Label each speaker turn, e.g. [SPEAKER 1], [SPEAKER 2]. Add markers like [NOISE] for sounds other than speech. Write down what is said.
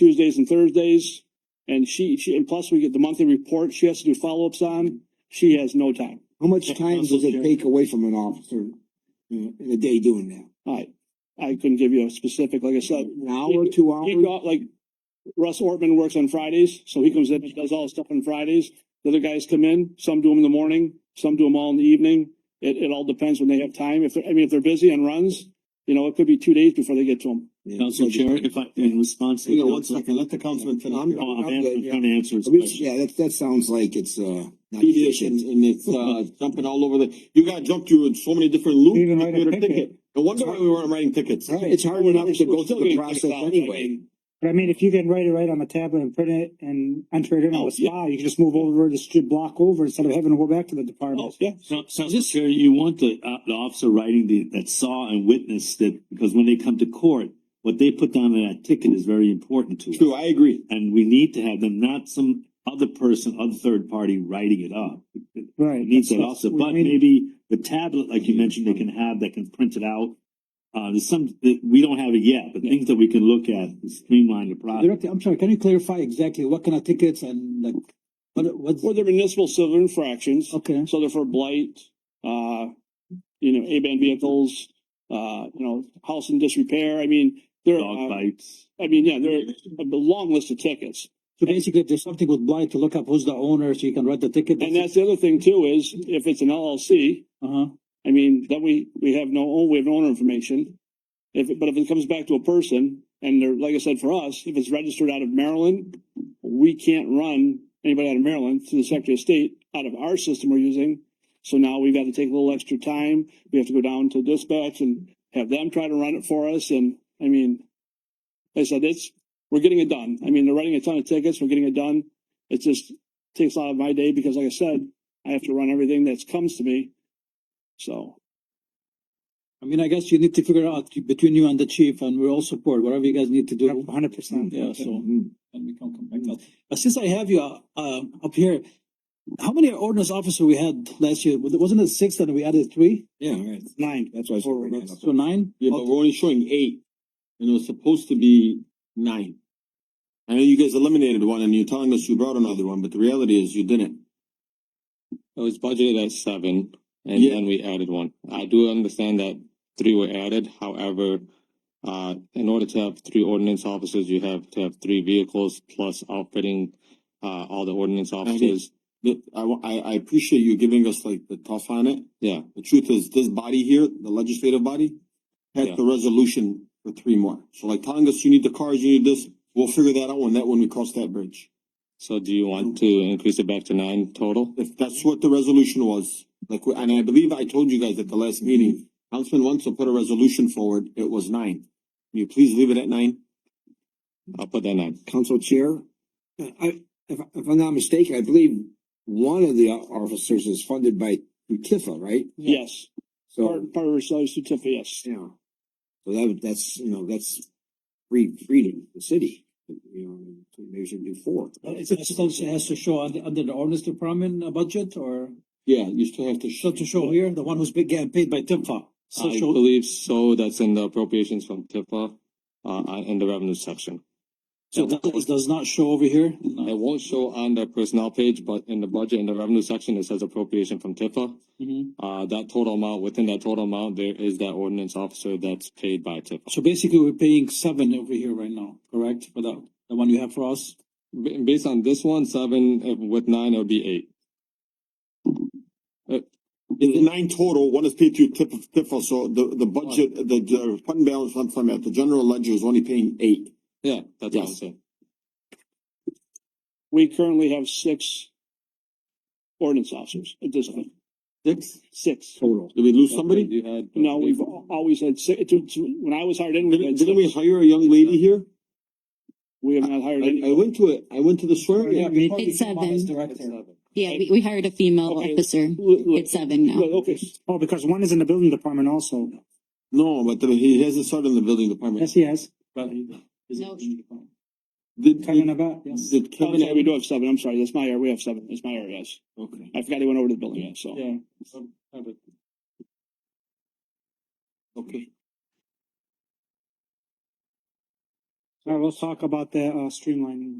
[SPEAKER 1] Tuesdays and Thursdays. And she, she, and plus we get the monthly report she has to do follow-ups on. She has no time.
[SPEAKER 2] How much time does it take away from an officer in in a day doing that?
[SPEAKER 1] I, I couldn't give you a specific, like I said.
[SPEAKER 2] An hour, two
[SPEAKER 1] He
[SPEAKER 2] hours?
[SPEAKER 1] got, like, Russ Ortman works on Fridays, so he comes in and does all his stuff on Fridays. The other guys come in, some do them in the morning, some do them all in the evening. It, it all depends when they have time. If, they're I mean, if they're busy and runs, you know, it could be two days before they get to them.
[SPEAKER 2] Yeah.
[SPEAKER 3] Council Chair, if I, in response to.
[SPEAKER 2] Hang on one second,
[SPEAKER 3] let the
[SPEAKER 2] councilman finish.
[SPEAKER 3] I'm, oh, I'm answering- I'm trying to answer his
[SPEAKER 2] At least-
[SPEAKER 3] question.
[SPEAKER 2] Yeah, that, that sounds like it's, uh, not
[SPEAKER 4] tedious
[SPEAKER 2] efficient.
[SPEAKER 4] and,
[SPEAKER 2] [LAUGHS]
[SPEAKER 4] and it's, uh, jumping all over the, you gotta jump through so many different loops.
[SPEAKER 5] Even
[SPEAKER 4] to
[SPEAKER 5] write a
[SPEAKER 4] get a
[SPEAKER 5] ticket.
[SPEAKER 4] ticket. No wonder why we weren't writing tickets.
[SPEAKER 2] It's hard enough to go through the process anyway.
[SPEAKER 5] But I mean, if you can write it right on the tablet and print it and enter it into
[SPEAKER 4] Oh,
[SPEAKER 5] the spot, you can just move over, just do block over instead of having to go back to the department.
[SPEAKER 1] Yeah,
[SPEAKER 3] So, Council Chair, you want the, uh, the officer writing the, that saw and witnessed that, because when they come to court, what they put down on that ticket is very important to us.
[SPEAKER 4] True, I agree.
[SPEAKER 3] And we need to have them, not some other person, other third party writing it up.
[SPEAKER 5] Right.
[SPEAKER 3] It needs that
[SPEAKER 5] That's-
[SPEAKER 3] also,
[SPEAKER 5] we
[SPEAKER 3] but
[SPEAKER 5] need-
[SPEAKER 3] maybe the tablet, like you mentioned, they can have, that can print it out. Uh, there's some, that we don't have it yet, but things that we can look at, to streamline the process.
[SPEAKER 6] Director, I'm sorry, can you clarify exactly what kind of tickets and like, what, what's,
[SPEAKER 1] Or they're municipal civil infractions.
[SPEAKER 6] okay,
[SPEAKER 1] So they're for blight, uh, you know, A-band vehicles, uh, you know, house in disrepair. I mean, there
[SPEAKER 3] Dog
[SPEAKER 1] are,
[SPEAKER 3] bites.
[SPEAKER 1] I mean, yeah, there are a long list of tickets.
[SPEAKER 6] so basically if there's something with blight to look up who's the owner, so you can write the ticket.
[SPEAKER 1] And that's the other thing too, is if it's an LLC,
[SPEAKER 6] Uh-huh,
[SPEAKER 1] I mean, then we, we have no, oh, we have no owner information. If, it- but if it comes back to a person and they're, like I said, for us, if it's registered out of Maryland, we can't run anybody out of Maryland to the Secretary of State out of our system we're using. So now we've got to take a little extra time. We have to go down to dispatch and have them try to run it for us. And I mean, like I said, it's, we're getting it done. I mean, they're writing a ton of tickets. We're getting it done. It just takes a lot of my day because like I said, I have to run everything that comes to me. So.
[SPEAKER 6] I mean, I guess you need to figure out between you and the chief and we're all support, whatever you guys need to do.
[SPEAKER 5] Hundred percent.
[SPEAKER 6] Yeah, so.
[SPEAKER 2] Mhm.
[SPEAKER 6] and we can come back now. But since I have you uh, uh, up here, how many ordinance officer we had last year? Was- Wasn't it six and we added three?
[SPEAKER 2] Yeah, right.
[SPEAKER 5] Nine.
[SPEAKER 2] That's why. I
[SPEAKER 6] Or-
[SPEAKER 2] said-
[SPEAKER 6] So nine?
[SPEAKER 4] Yeah, but we're only showing eight. And it was supposed to be nine. I know you guys eliminated one and you're telling us you brought another one, but the reality is you didn't.
[SPEAKER 7] It was budgeted as seven, and
[SPEAKER 4] Yeah.
[SPEAKER 7] then we added one. I do understand that three were added, however, uh, in order to have three ordinance officers, you have to have three vehicles plus outfitting, uh, all the ordinance officers.
[SPEAKER 4] But I, wa- I, I appreciate you giving us like the tough on it.
[SPEAKER 7] Yeah,
[SPEAKER 4] The truth is, this body here, the legislative body,
[SPEAKER 7] Yeah.
[SPEAKER 4] passed the resolution for three more. So like telling us you need the cars, you need this, we'll figure that out when that, when we cross that bridge.
[SPEAKER 7] so do you want to increase it back to nine total?
[SPEAKER 4] If that's what the resolution was, like, and I believe I told you guys at the last meeting, Councilman Wenzel put a resolution forward, it was nine. Can you please leave it at nine?
[SPEAKER 7] I'll put that nine.
[SPEAKER 2] Council Chair, uh, I, if, if I'm not mistaken, I believe one of the officers is funded by Tifa, right?
[SPEAKER 1] Yes,
[SPEAKER 2] So,
[SPEAKER 1] part, part of her salary certificate, yes.
[SPEAKER 2] yeah. So that, that's, you know, that's free, freedom, the city, you know, maybe we should do four.
[SPEAKER 6] Uh, It's, it has to show under, under the ordinance department uh, budget or?
[SPEAKER 4] Yeah, you still have to.
[SPEAKER 6] So to show here, the one who's been getting paid by Timfa. So
[SPEAKER 7] I
[SPEAKER 6] show,
[SPEAKER 7] believe so, that's in the appropriations from Tifa, uh, uh, in the revenue section.
[SPEAKER 6] so that is- does not show over here.
[SPEAKER 7] It won't show on the personnel page, but in the budget, in the revenue section, it says appropriation from Tifa.
[SPEAKER 6] Mhm.
[SPEAKER 7] Uh, that total amount, within that total amount, there is that ordinance officer that's paid by Tifa.
[SPEAKER 6] So basically, we're paying seven over here right now, correct? For the, the one you have for us?
[SPEAKER 7] Ba- Based on this one, seven, uh, with nine, it would be eight.
[SPEAKER 4] It's nine total, one is paid through tip of Tifa, so the, the budget, the, the fund balance, I'm from at the general ledger is only paying eight.
[SPEAKER 7] Yeah, that's what I'm
[SPEAKER 4] Yes.
[SPEAKER 7] saying.
[SPEAKER 1] We currently have six ordinance officers at this point,
[SPEAKER 4] Six?
[SPEAKER 1] six.
[SPEAKER 2] Total.
[SPEAKER 4] Did we lose somebody?
[SPEAKER 7] You had. uh,
[SPEAKER 1] No, we've al- always had six, when I was hired in, we
[SPEAKER 4] Didn't,
[SPEAKER 1] had
[SPEAKER 4] didn't we
[SPEAKER 1] six.
[SPEAKER 4] hire a young lady here?
[SPEAKER 1] We have not hired
[SPEAKER 4] I, I
[SPEAKER 1] any.
[SPEAKER 4] went to it, I went to the swearing.
[SPEAKER 6] Yeah, before
[SPEAKER 8] It's
[SPEAKER 6] you came on as
[SPEAKER 8] seven.
[SPEAKER 6] director.
[SPEAKER 8] Yeah, we, we hired a female
[SPEAKER 1] Okay.
[SPEAKER 8] officer.
[SPEAKER 1] Look, look,
[SPEAKER 8] It's
[SPEAKER 4] uh,
[SPEAKER 8] seven now.
[SPEAKER 1] look, Okay,
[SPEAKER 5] Oh, because one is in the building department also.
[SPEAKER 4] No, but the- he hasn't started in the building department.
[SPEAKER 5] Yes, he has.
[SPEAKER 6] But he- is
[SPEAKER 8] No.
[SPEAKER 6] it-
[SPEAKER 4] Did,
[SPEAKER 5] Talking
[SPEAKER 4] did,
[SPEAKER 5] about, yes.
[SPEAKER 4] did
[SPEAKER 1] Oh,
[SPEAKER 4] Kevin?
[SPEAKER 1] yeah, we do have seven, I'm sorry, that's my area, we have seven, it's my area, yes.
[SPEAKER 4] Okay.
[SPEAKER 1] I forgot he went over to the building, yeah, so.
[SPEAKER 6] Yeah. so, have it.
[SPEAKER 4] Okay.
[SPEAKER 6] All right, let's talk about the uh, streamlining.